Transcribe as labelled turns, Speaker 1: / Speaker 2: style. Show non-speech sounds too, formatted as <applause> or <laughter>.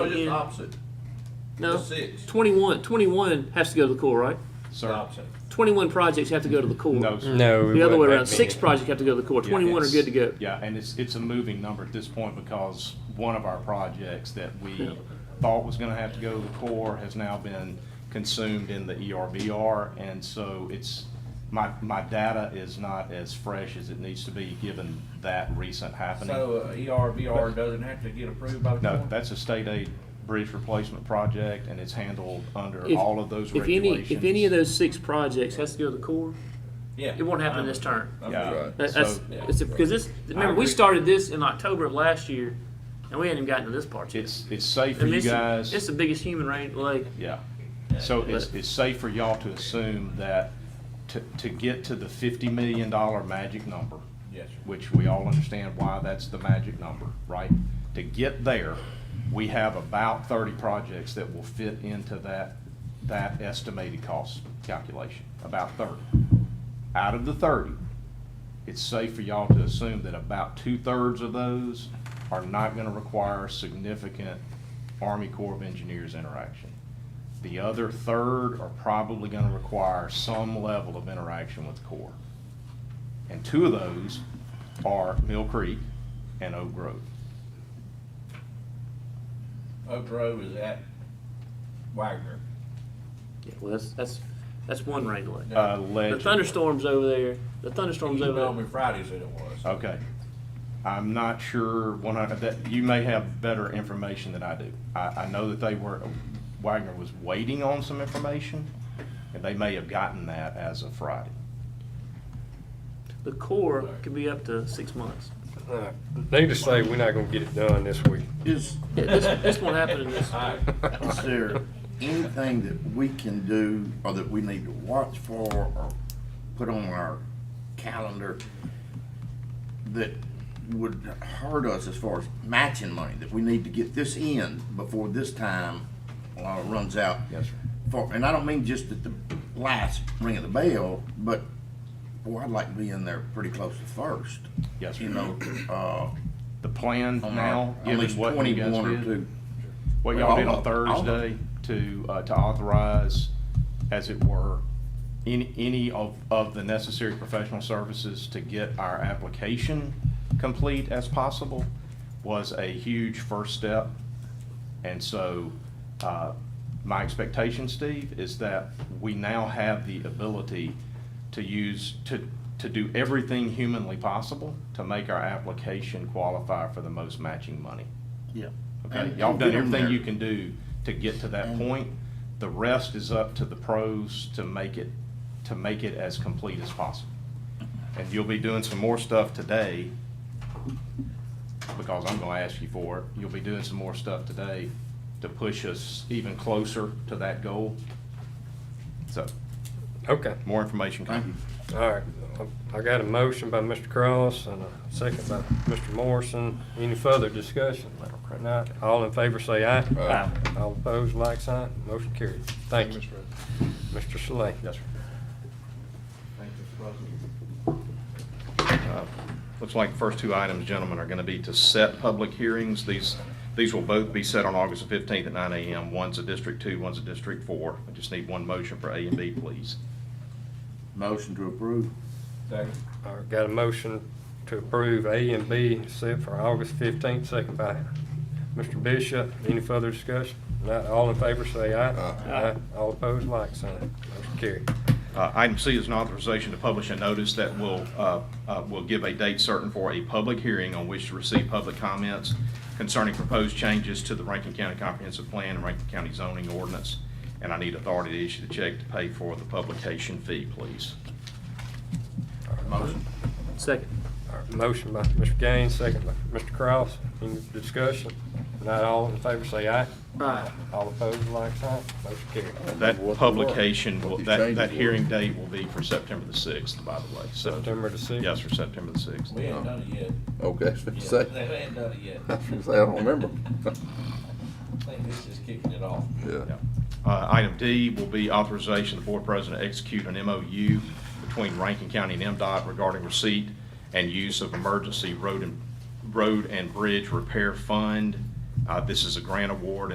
Speaker 1: Just
Speaker 2: Yeah.
Speaker 1: opposite,
Speaker 2: No.
Speaker 1: It's six.
Speaker 2: 21, 21 has to go to the core, right?
Speaker 1: It's opposite.
Speaker 2: 21 projects have to go to the core.
Speaker 3: No, sir.
Speaker 4: No, we
Speaker 2: The other
Speaker 4: wouldn't
Speaker 2: way
Speaker 4: make
Speaker 2: around, six
Speaker 4: me.
Speaker 2: projects have to go to the core,
Speaker 3: Yeah,
Speaker 2: 21 are
Speaker 3: it's-
Speaker 2: good to go.
Speaker 3: Yeah, and it's, it's a moving number at this point because one of our projects that we thought was gonna have to go to the core has now been consumed in the E ERBR. And so it's, my, my data is not as fresh as it needs to be, given that recent happening.
Speaker 1: So uh, ERBR doesn't have to get approved by the
Speaker 3: No,
Speaker 1: court?
Speaker 3: that's a state aid bridge replacement project, and it's handled under
Speaker 2: If-
Speaker 3: all of those
Speaker 2: If any,
Speaker 3: regulations.
Speaker 2: if any of those six projects has to go to the core,
Speaker 1: Yeah.
Speaker 2: it won't happen this term.
Speaker 1: Okay.
Speaker 3: Yeah,
Speaker 2: That- That's,
Speaker 3: so
Speaker 2: it's, a- because this, remember, we
Speaker 1: agree.
Speaker 2: started this in October of last year, and we hadn't even gotten to this part yet.
Speaker 3: it's, it's safe for
Speaker 2: And
Speaker 3: you
Speaker 2: this is-
Speaker 3: guys.
Speaker 2: It's the biggest human rain, like,
Speaker 3: Yeah. So it's,
Speaker 2: But-
Speaker 3: it's safe for y'all to assume that to, to get to the fifty million dollar magic number,
Speaker 1: Yes, sir.
Speaker 3: which we all understand why that's the magic number, right? To get there, we have about thirty projects that will fit into that, that estimated cost calculation, about thirty. Out of the thirty, it's safe for y'all to assume that about two-thirds of those are not gonna require significant Army Corps of Engineers interaction. The other third are probably gonna require some level of interaction with Corps. And two of those are Mill Creek and Oak Grove.
Speaker 1: Oak Grove is at Wagner.
Speaker 2: yeah, well, that's, that's, that's one rain delay.
Speaker 3: Uh,
Speaker 2: The
Speaker 3: Ledge-
Speaker 2: thunderstorms over there, the
Speaker 1: You
Speaker 2: thunderstorms
Speaker 1: told
Speaker 2: over
Speaker 1: me Friday said it was.
Speaker 3: Okay. I'm not sure one hundred, that, you may have better information than I do. I, I know that they were, Wagner was waiting on some information, and they may have gotten that as of Friday.
Speaker 2: there, the core could be up to six months.
Speaker 4: Uh, Needless to say, we're not gonna get it done this week.
Speaker 5: Is,
Speaker 2: Yeah, this, this won't happen in this.
Speaker 1: All right.
Speaker 5: is there anything that we can do or that we need to watch for or put on our calendar that would hurt us as far as matching money, that we need to get this in before this time uh, runs out?
Speaker 3: Yes, sir.
Speaker 5: For, and I don't mean just at the last ring of the bell, but, boy, I'd like to be in there pretty close to first.
Speaker 3: Yes,
Speaker 5: You
Speaker 3: sir.
Speaker 5: know, uh,
Speaker 3: The plan
Speaker 5: on our,
Speaker 3: now,
Speaker 5: at
Speaker 3: given
Speaker 5: least
Speaker 3: what you guys
Speaker 5: twenty-one or
Speaker 3: did.
Speaker 5: two.
Speaker 3: what y'all did on
Speaker 5: All of-
Speaker 3: Thursday to, uh, to authorize, as it were, any, any of, of the necessary professional services to get our application complete as possible was a huge first step. And so, uh, my expectation, Steve, is that we now have the ability to use, to, to do everything humanly possible to make our application qualify for the most matching money.
Speaker 5: Yeah.
Speaker 3: Okay,
Speaker 5: And-
Speaker 3: y'all
Speaker 5: and
Speaker 3: done
Speaker 5: get 'em
Speaker 3: everything
Speaker 5: there.
Speaker 3: you can do to get to that
Speaker 5: And-
Speaker 3: point. The rest is up to the pros to make it, to make it as complete as possible. And you'll be doing some more stuff today, because I'm gonna ask you for it. You'll be doing some more stuff today to push us even closer to that goal. So,
Speaker 4: Okay,
Speaker 3: more information
Speaker 5: Thank you.
Speaker 3: coming.
Speaker 4: all right. I I got a motion by Mr. Cross and a second by Mr. Morrison. Any further discussion? Not, all in favor say aye.
Speaker 3: Aye.
Speaker 4: All opposed, like sign, motion carried. Thank you. Mr. Slay.
Speaker 3: Yes, sir. Uh, Looks like the first two items, gentlemen, are going to be to set public hearings. These, these will both be set on August the 15th at 9 a.m. One's a District 2, one's a District 4. I just need one motion for A and B, please.
Speaker 5: Motion to approve.
Speaker 1: Second.
Speaker 4: All right, got a motion to approve A and B set for August fifteenth, second by Mr. Bishop. Any further discussion? Not, all in favor say aye. Aye. All opposed, like sign, motion carried.
Speaker 3: Uh, Item C is an authorization to publish a notice that will, uh, uh, will give a date certain for a public hearing on which to receive public comments concerning proposed changes to the Rankin County Comprehensive Plan and Rankin County zoning ordinance. And I need authority to issue the check to pay for the publication fee, please.
Speaker 5: Motion.
Speaker 2: Second.
Speaker 4: All right, motion by Mr. Gaines, second by Mr. Cross. Any discussion? Not all in favor say aye.
Speaker 2: Aye.
Speaker 4: All opposed, like sign, motion carried.
Speaker 3: That
Speaker 6: What the-
Speaker 3: publication, will-
Speaker 6: what the
Speaker 3: that,
Speaker 6: changes
Speaker 3: that
Speaker 6: were.
Speaker 3: hearing date will be for September the 6th, by the way, so.
Speaker 4: September the 6th.
Speaker 3: Yes, for September the 6th.
Speaker 1: We ain't done it yet.
Speaker 6: Okay, <laughs> I was gonna
Speaker 1: Yeah,
Speaker 6: say,
Speaker 1: They ain't done it yet.
Speaker 6: <laughs> I was gonna say, I don't remember. <laughs>
Speaker 1: I think this is kicking it off.
Speaker 6: Yeah.
Speaker 3: Uh, Item D will be authorization of the board president to execute an MOU between Rankin County and MDOT regarding receipt and use of emergency road and, road and bridge repair fund. Uh, This is a grant award